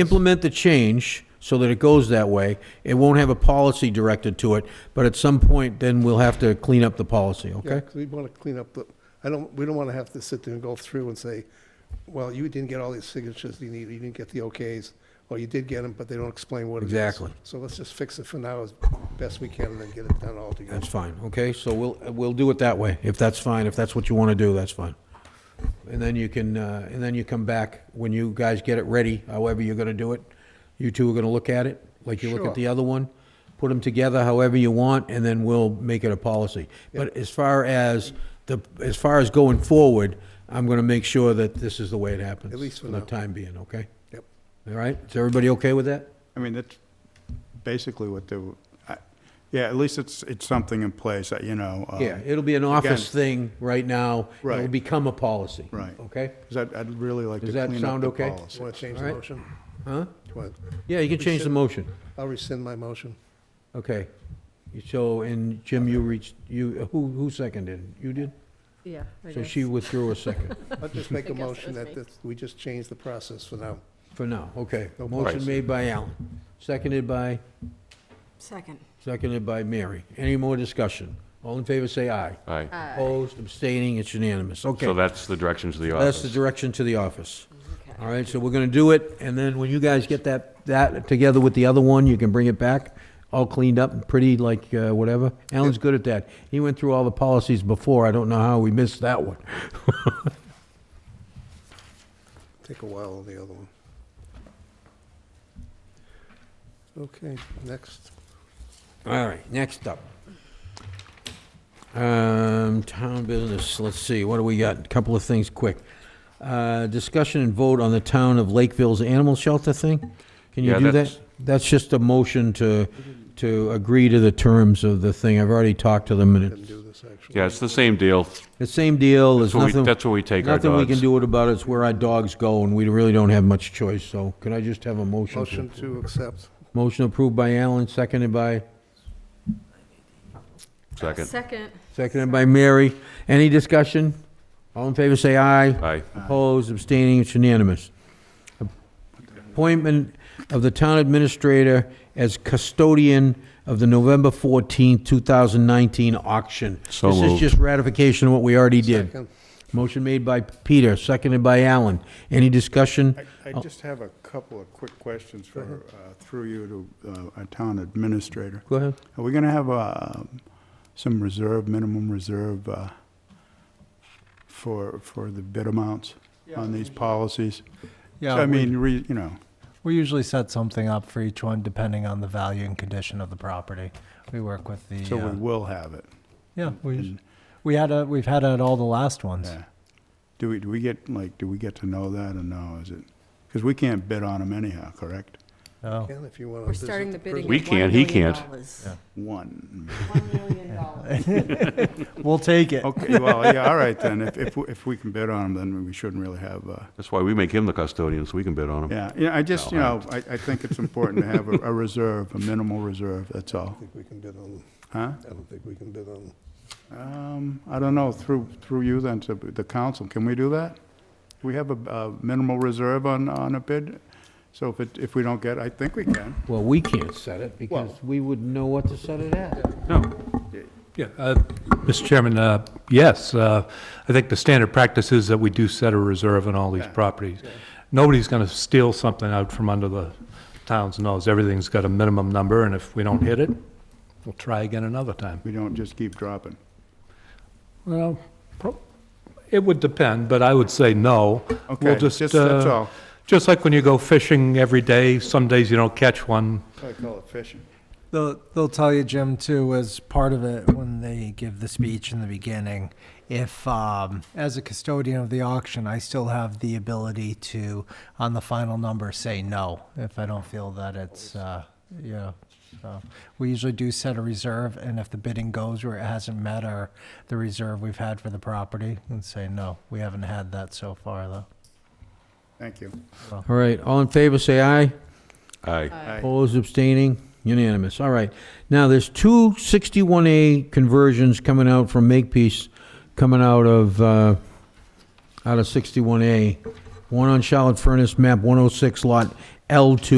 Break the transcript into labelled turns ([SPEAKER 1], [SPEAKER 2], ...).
[SPEAKER 1] implement the change so that it goes that way. It won't have a policy directed to it, but at some point, then we'll have to clean up the policy,
[SPEAKER 2] Yeah,
[SPEAKER 1] okay?
[SPEAKER 2] 'cause we want to clean up the, I don't, we don't want to have to sit there and go through and say, well, you didn't get all these signatures you need, you didn't get the OKs, or you did get them, but they don't explain what it is.
[SPEAKER 1] Exactly.
[SPEAKER 2] So let's just fix it for now as best we can and then get it done all together.
[SPEAKER 1] That's fine, okay? So we'll, we'll do it that way, if that's fine, if that's what you want to do, that's fine. And then you can, uh, and then you come back, when you guys get it ready, however you're going to do it, you two are going to look at it, like you look
[SPEAKER 2] Sure.
[SPEAKER 1] at the other one, put them together however you want, and then we'll make it a policy. But as far as, the as far as going forward, I'm going to make sure that this is the way it happens.
[SPEAKER 2] At least for
[SPEAKER 1] the
[SPEAKER 2] now.
[SPEAKER 1] time being, okay?
[SPEAKER 2] Yep.
[SPEAKER 1] All right, is everybody okay with that?
[SPEAKER 3] I mean, that's basically what they, were- I- yeah, at least it's, it's something in place, that, you know. um,
[SPEAKER 1] Yeah, it'll be an office thing right now. It'll
[SPEAKER 3] Right.
[SPEAKER 1] become a policy.
[SPEAKER 3] Right.
[SPEAKER 1] Okay?
[SPEAKER 3] 'cause I'd, I'd really like to
[SPEAKER 1] Does that
[SPEAKER 3] clean up
[SPEAKER 1] sound
[SPEAKER 3] the
[SPEAKER 1] okay?
[SPEAKER 2] Do
[SPEAKER 3] policy.
[SPEAKER 2] you want to change
[SPEAKER 1] All
[SPEAKER 2] the
[SPEAKER 1] right.
[SPEAKER 2] motion?
[SPEAKER 1] Huh?
[SPEAKER 2] Do you want-
[SPEAKER 1] Yeah, you can change the
[SPEAKER 2] should-
[SPEAKER 1] motion.
[SPEAKER 2] I'll rescind my motion.
[SPEAKER 1] Okay. So, and Jim, you reached, you, who, who seconded? You did?
[SPEAKER 4] Yeah. I
[SPEAKER 1] So
[SPEAKER 4] guess.
[SPEAKER 1] she withdrew a second,
[SPEAKER 2] I'll just make
[SPEAKER 4] I
[SPEAKER 2] a
[SPEAKER 4] guess that
[SPEAKER 2] motion
[SPEAKER 4] was
[SPEAKER 2] that
[SPEAKER 4] me.
[SPEAKER 2] this- we just change the process for now.
[SPEAKER 1] for now, okay.
[SPEAKER 2] No
[SPEAKER 1] Motion
[SPEAKER 2] policy.
[SPEAKER 1] made by Alan, seconded by,
[SPEAKER 4] Second.
[SPEAKER 1] seconded by Mary. Any more discussion? All in favor, say aye.
[SPEAKER 5] Aye.
[SPEAKER 1] Opposed, abstaining, it's unanimous. Okay.
[SPEAKER 5] So that's the directions of the
[SPEAKER 1] That's the
[SPEAKER 5] office.
[SPEAKER 1] direction to the office.
[SPEAKER 4] Okay.
[SPEAKER 1] All right, so we're gonna do it, and then when you guys get that, that together with the other one, you can bring it back, all cleaned up and pretty, like, uh, whatever. Alan's good at that. He went through all the policies before, I don't know how we missed that one.
[SPEAKER 2] Take a while on the other one. Okay, next.
[SPEAKER 1] All right, next up. Um, town business, let's see, what do we got? A Couple of things quick. Uh, discussion and vote on the town of Lakeville's animal shelter thing? Can you
[SPEAKER 5] Yeah,
[SPEAKER 1] do that?
[SPEAKER 5] that's-
[SPEAKER 1] That's just a motion to, to agree to the terms of the thing. I've already talked to them and
[SPEAKER 2] Didn't
[SPEAKER 1] it's
[SPEAKER 2] do this, actually.
[SPEAKER 5] Yeah, it's the same deal.
[SPEAKER 1] the same deal. There's
[SPEAKER 5] That's where we-
[SPEAKER 1] nothing.
[SPEAKER 5] that's where we take our
[SPEAKER 1] Nothing we can
[SPEAKER 5] dogs.
[SPEAKER 1] do about it. It's where our dogs go and we really don't have much choice. So can I just have a motion? to-
[SPEAKER 2] Motion to accept.
[SPEAKER 1] Motion approved by Alan, seconded by?
[SPEAKER 5] Second.
[SPEAKER 4] Second.
[SPEAKER 1] Seconded by Mary. Any discussion? All in favor, say aye.
[SPEAKER 5] Aye.
[SPEAKER 1] Opposed, abstaining, it's unanimous. Appointment of the town administrator as custodian of the November 14, 2019 auction.
[SPEAKER 5] So
[SPEAKER 1] This is
[SPEAKER 5] moved.
[SPEAKER 1] just ratification of what we already did.
[SPEAKER 2] Second.
[SPEAKER 1] Motion made by Peter, seconded by Alan. Any discussion?
[SPEAKER 3] I, I just have a couple of quick questions for,
[SPEAKER 1] Mm-hmm.
[SPEAKER 3] uh, through you to uh, our town administrator.
[SPEAKER 1] Go ahead.
[SPEAKER 3] Are we gonna have, um, some reserve, minimum reserve, uh, for, for the bid amounts on these policies? So,
[SPEAKER 6] Yeah,
[SPEAKER 3] I
[SPEAKER 6] we,
[SPEAKER 3] mean, re, you know,
[SPEAKER 6] we usually set something up for each one depending on the value and condition of the property. We work with the,
[SPEAKER 3] so
[SPEAKER 6] uh,
[SPEAKER 3] we will have it.
[SPEAKER 6] yeah, we, us-
[SPEAKER 3] and-
[SPEAKER 6] we had a, we've had it at all the last ones.
[SPEAKER 3] Yeah. Do we, do we get, like, do we get to know that or no, is it? Because we can't bid on them anyhow, correct?
[SPEAKER 6] No.
[SPEAKER 2] Ken, if you want to.
[SPEAKER 4] We're starting the bidding.
[SPEAKER 5] We
[SPEAKER 4] at
[SPEAKER 5] can't, he
[SPEAKER 4] $1
[SPEAKER 5] can't.
[SPEAKER 4] million.
[SPEAKER 3] One.
[SPEAKER 4] One million dollars.
[SPEAKER 6] We'll take it.
[SPEAKER 3] Okay, well, yeah, all right then, if, if, we- if we can bid on them, then we shouldn't really have, uh,
[SPEAKER 5] That's why we make him the custodian, so we can bid on him.
[SPEAKER 3] yeah, yeah, I just, you
[SPEAKER 5] No,
[SPEAKER 3] know, I, I think it's important to have a, a reserve, a minimal reserve, that's all,
[SPEAKER 2] I think we can bid on,
[SPEAKER 3] huh?
[SPEAKER 2] I don't think we can bid on.
[SPEAKER 3] Um, I don't know, through, through you then to the council, can we do that? We have a, a minimal reserve on, on a bid, so if it, if we don't get, I think we can.
[SPEAKER 1] Well, we can't set it because
[SPEAKER 3] Well-
[SPEAKER 1] we wouldn't know what to set it at.
[SPEAKER 5] No,
[SPEAKER 7] Yeah, uh, Mr. Chairman, uh, yes, uh, I think the standard practice is that we do set a reserve on all these properties. Nobody's going to steal something out from under the town's nose. Everything's got a minimum number, and if we don't hit it, we'll try again another time.
[SPEAKER 3] We don't just keep dropping.
[SPEAKER 7] Well, pro- it would depend, but I would say no. We'll
[SPEAKER 3] Okay, just, that's
[SPEAKER 7] uh,
[SPEAKER 3] all.
[SPEAKER 7] Just like when you go fishing every day, some days you don't catch one,
[SPEAKER 3] I call it fishing.
[SPEAKER 6] They'll, they'll tell you, Jim, too, as part of it when they give the speech in the beginning. If, um, as a custodian of the auction, I still have the ability to, on the final number, say no if I don't feel that it's, uh, yeah. So we usually do set a reserve, and if the bidding goes where it hasn't met our the reserve we've had for the property, and say no, we haven't had that so far though.
[SPEAKER 3] Thank you.
[SPEAKER 1] All right, all in favor, say aye.
[SPEAKER 5] aye.
[SPEAKER 3] Aye.
[SPEAKER 1] Opposed, abstaining, unanimous. All right. Now, there's two 61A conversions coming out from Makepeace, coming out of, uh, out of 61A. One on Charlotte Furnace, map 106, lot L2